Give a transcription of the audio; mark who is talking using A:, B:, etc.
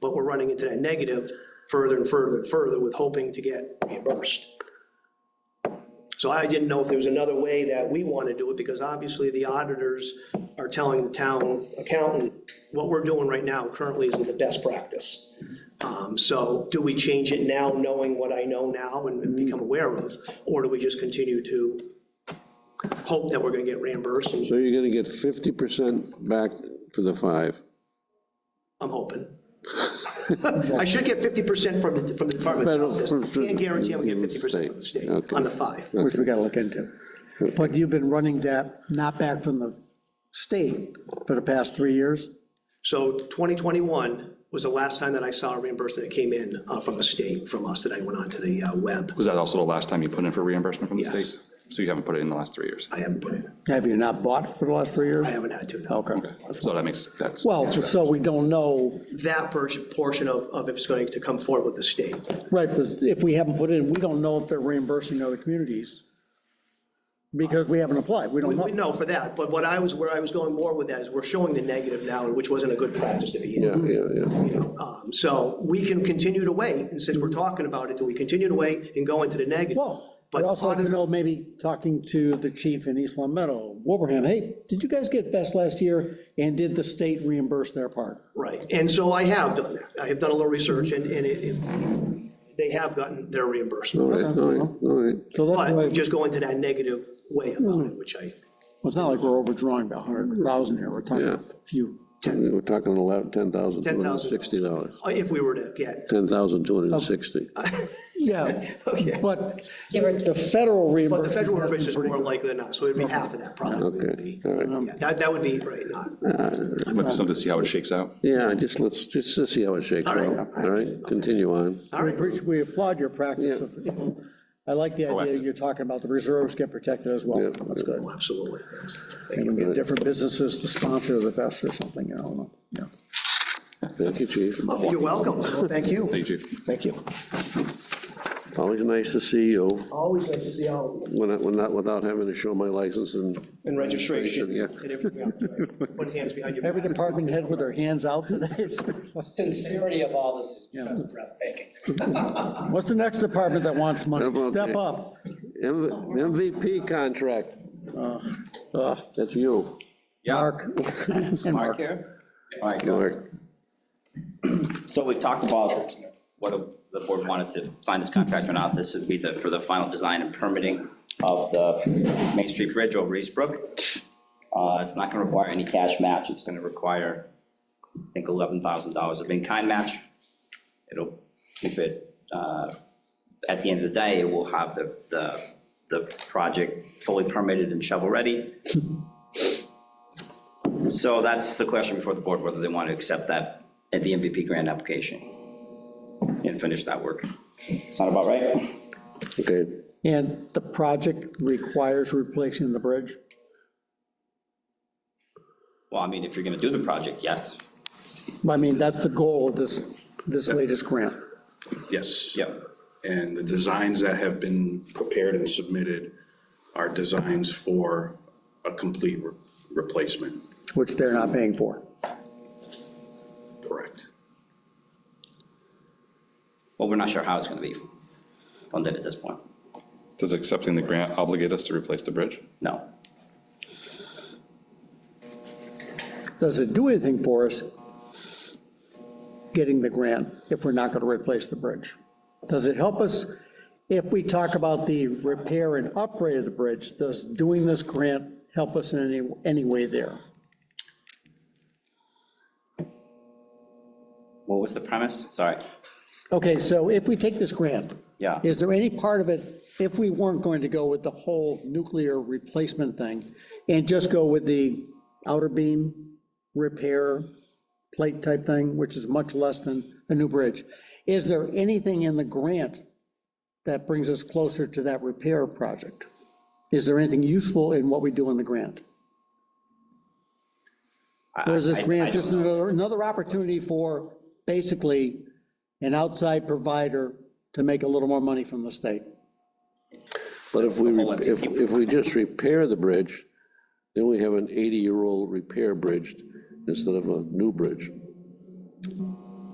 A: but we're running into that negative further and further and further with hoping to get reimbursed. So I didn't know if there was another way that we want to do it, because obviously the auditors are telling the town accountant, what we're doing right now currently isn't the best practice. Um, So do we change it now, knowing what I know now and become aware of? Or do we just continue to hope that we're gonna get reimbursed? And
B: So you're gonna get fifty percent back for the five.
A: I'm hoping. I should get fifty percent from the, from the Department of
B: Federal-
A: Justice.
B: from-
A: Can't guarantee I'm gonna get fifty percent from the
B: State,
A: state
B: okay.
A: on the five.
C: which we gotta look into. But you've been running that, not back from the state for the past three years?
A: So 2021 was the last time that I saw a reimbursement that came in uh, from the state, from us, that I went onto the uh, web.
D: Was that also the last time you put in for reimbursement from the
A: Yes.
D: state? So you haven't put it in the last three years?
A: I haven't put it,
C: Have you not bought for the last three years?
A: I haven't had to, no.
C: Okay.
D: So that makes, that's.
C: Well, so we don't know,
A: That por- portion of, of if it's going to come forward with the state.
C: right, because if we haven't put in, we don't know if they're reimbursing other communities because we haven't applied. We don't
A: We
C: know.
A: know for that, but what I was, where I was going more with that is we're showing the negative now, which wasn't a good practice to begin
B: Yeah, yeah, yeah.
A: Um, So we can continue to wait, and since we're talking about it, do we continue to wait and go into the negative?
C: Well,
A: But
C: but also, like
A: part
C: to
A: of-
C: know, maybe talking to the chief in East Long Meadow, Wilbraham, hey, did you guys get best last year? And did the state reimburse their part?
A: right. And so I have done that. I have done a little research, and, and it- it- they have gotten their
B: All
A: reimbursement.
B: right, all right, all right.
C: So that's why,
A: But just go into that negative way about it, which I,
C: well, it's not like we're overdrawing by 100,000 here, we're talking a few.
B: We're talking about ten thousand two hundred and sixty dollars,
A: if we were to get,
B: ten thousand two
A: Oh.
B: hundred and sixty.
C: Yeah,
A: okay.
C: but
E: Give or
C: the federal
A: But the federal
C: reimbursement,
A: reimbursement is more likely than not, so it'd be half of that probably. would
B: Okay,
A: be.
B: all right.
A: Yeah, That, that would be, right, not,
D: Might be something to see how it shakes out.
B: Yeah, just let's, just to see how it shakes out, all right? Continue on.
A: all
C: we
A: right.
C: appreciate- we applaud your practice. of- I like
B: Oh,
C: the idea
D: Proactive.
C: you're talking about, the reserves get protected as well, that's good.
A: Oh, Absolutely.
C: And we get different businesses to sponsor the vest or something, you know, yeah.
B: Thank you, chief.
A: You're welcome. Thank you.
D: Thank you, Chief.
A: Thank you.
B: Always nice to see you,
A: Always nice to see all of you.
B: when I, when not, without having to show my license and,
A: And registration.
B: Yeah.
A: And everything else, right? Put hands behind your
C: Every
A: back.
C: department head with their hands out today.
F: Sincerity of all this is just breathtaking.
C: What's the next department that wants
B: How
C: money?
B: about
C: Step
B: that?
C: up.
B: M- MVP contract,
A: Uh.
B: Ah,
C: Ugh,
B: that's you.
F: Yeah,
C: Mark.
F: Mark here. All right, go.
B: Mark.
F: So we've talked about whether the board wanted to sign this contract or not. This would be the, for the final design and permitting of the Main Street Bridge over East Brook. Uh, It's not going to require any cash match. It's going to require, I think, $11,000 of in-kind match. It'll keep it, uh, at the end of the day, it will have the, the, the project fully permitted and shovel-ready. So that's the question before the board, whether they want to accept that at the MVP grant application and finish that work. Sound about right?
B: Okay,
C: And the project requires replacing the bridge?
F: Well, I mean, if you're going to do the project, yes.
C: I mean, that's the goal of this, this latest grant.
G: Yes.
F: Yep.
G: And the designs that have been prepared and submitted are designs for a complete re- replacement,
C: which they're not paying for.
G: correct?
F: Well, we're not sure how it's going to be funded at this point.
D: Does accepting the grant obligate us to replace the bridge?
F: No.
C: Does it do anything for us getting the grant if we're not going to replace the bridge? Does it help us if we talk about the repair and upgrade of the bridge? Does doing this grant help us in any, any way there?
F: What was the premise? Sorry.
C: Okay, so if we take this grant,
F: Yeah.
C: is there any part of it, if we weren't going to go with the whole nuclear replacement thing and just go with the outer beam repair plate type thing, which is much less than a new bridge, is there anything in the grant that brings us closer to that repair project? Is there anything useful in what we do in the grant?
F: I-
C: Or is this
F: I- I
C: grant
F: don't
C: just
F: know.
C: another, another opportunity for basically an outside provider to make a little more money from the state?
B: but if we, re- if, if we just repair the bridge, then we have an eighty-year-old repair bridge instead of a new bridge.